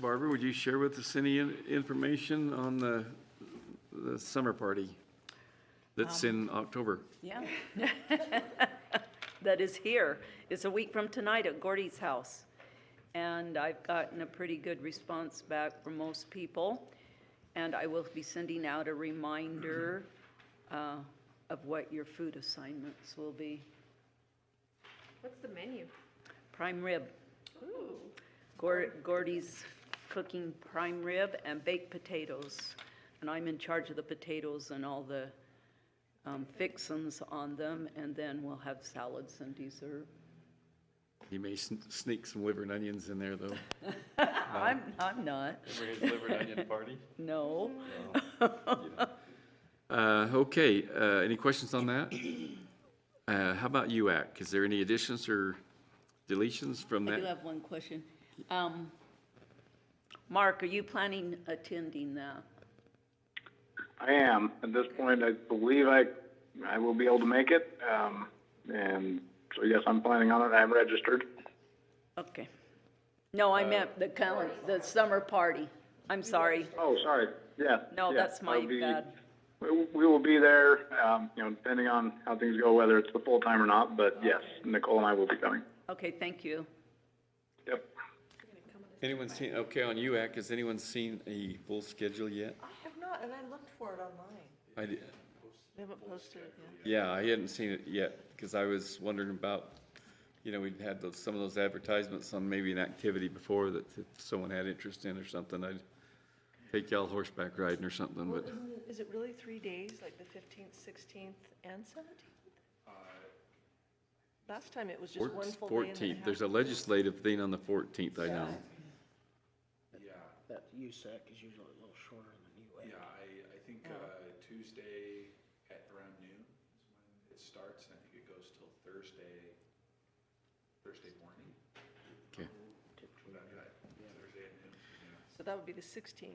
Barbara, would you share with us any in- information on the, the summer party that's Um. in October? Yeah. That is here. It's a week from tonight at Gordy's house. And I've gotten a pretty good response back from most people. And I will be sending out a reminder uh, of what your food assignments will be. What's the menu? Prime rib. Gor- Gordy's cooking prime rib and baked potatoes. And I'm in charge of the potatoes and all the um, fixins on them, and then we'll have salads and dessert. You may sn- sneak some liver and onions in there, though. I'm, I'm not, liver and onion party? no. Uh, okay, uh, any questions on that? Uh, how about UAC? Is there any additions or deletions from I do that? have one question. Um, Mark, are you planning attending that? I am. At this point, I believe I, I will be able to make it. Um, and so yes, I'm planning on it. I'm registered. Okay. No, I meant the calendar, the summer party. I'm sorry. Oh, sorry. Yeah. No, yeah, that's my I'll be- bad. We, we will be there, um, you know, depending on how things go, whether it's the full time or not, but yes, Nicole and I will be coming. Okay, thank you. Yep. Anyone seen, okay, on UAC, has anyone seen a full schedule yet? I have not, and I looked for it online. I did, They haven't posted it yet. yeah, I hadn't seen it yet, because I was wondering about, you know, we'd had those, some of those advertisements on maybe an activity before that if someone had interest in or something, I'd take y'all horseback riding or something, Well, but isn't it, is it really three days, like the fifteenth, sixteenth, and seventeenth? Last time it was just one full day and then Uh, fourteenth, half there's a a day. legislative thing on the fourteenth, I know. That USAC is usually a little shorter than UAC. Yeah, I, I think uh, Tuesday at around noon is when it starts, and I think it goes till Thursday, Thursday morning. Okay. Would that be right? Thursday at noon, yeah. So that would be the sixteenth.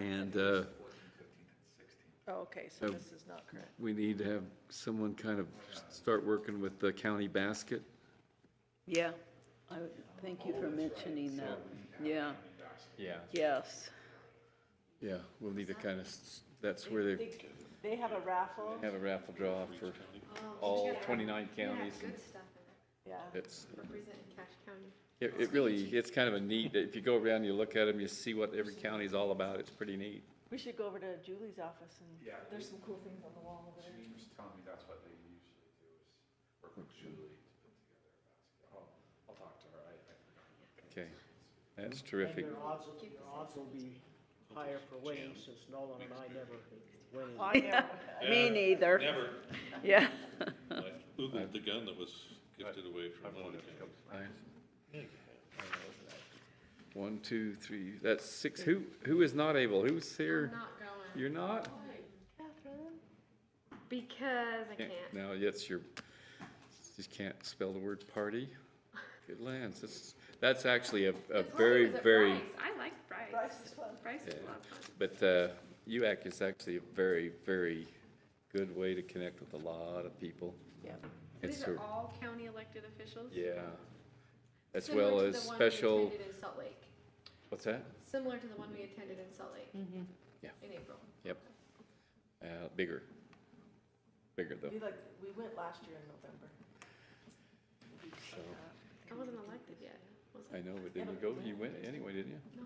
And, uh, Fourteenth, fifteenth, and sixteenth. Oh, okay, so Um, this is not correct. we need to have someone kind of start working with the county basket. Yeah, I, thank you for mentioning that. Yeah, Yeah. yes. Yeah, we'll need to kind of, that's where they They have a raffle, have a raffle draw for all twenty-nine counties. and Oh, Good stuff in it, yeah. It's, representing Cache County. it, it really, it's kind of a neat, if you go around, you look at them, you see what every county's all about, it's pretty neat. We should go over to Julie's office and, Yeah. there's some cool things on the wall over there. She was telling me that's what they usually do, is work with Julie to put together a basket. I'll, I'll talk to her, I, I forgot. Okay, that's And terrific. your odds, your odds will be higher for winning since Nolan and I never win. Oh, I know. Me neither. Never. Yeah. I Googled the gun that was gifted away from one of the counties. I- One, two, three, that's six. Who, who is not able? Who's here? Not going. You're not? Catherine? Because I Can't- can't. No, yes, you're, just can't spell the word party. Good lands, that's, that's actually a, a very, very, I like Bryce. Bryce is fun. Bryce Yeah. is a lot of fun. but, uh, UAC is actually a very, very good way to connect with a lot of people. Yeah. It's These sort are of- all county elected officials? Yeah, as Similar well to as the one we special, attended in Salt Lake, what's that? similar to the one we attended in Salt Lake. Mm-hmm. Yeah. In April. Yep. Uh, bigger, bigger though, We like, we went last year in November. so, I wasn't elected yet, was I? I know, but didn't you go, you went anyway, didn't you? No.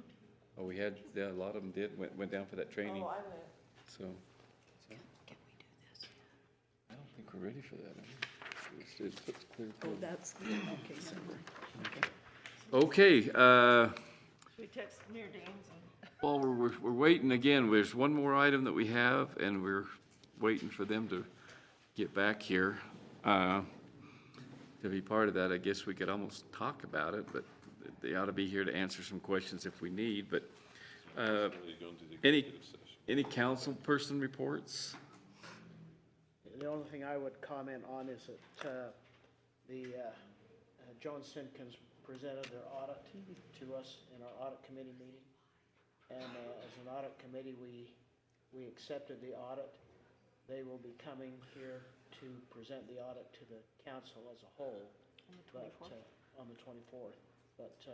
Oh, we had, yeah, a lot of them did, went, went down for that training, Oh, I went. so. Can we do this? I don't think we're ready for that. It's, it's clear. Oh, that's, okay, never mind. Okay, uh, Should we text Mayor Danes and? well, we're, we're, we're waiting again. There's one more item that we have, and we're waiting for them to get back here. Uh, to be part of that, I guess we could almost talk about it, but they ought to be here to answer some questions if we need, but, uh, They go into the Any- executive session. any council person reports? The only thing I would comment on is that, uh, the, uh, uh, John Simpkins presented their audit to us in our audit committee meeting. And, uh, as an audit committee, we, we accepted the audit. They will be coming here to present the audit to the council as a whole. On the twenty-fourth? On the twenty-fourth, but, uh,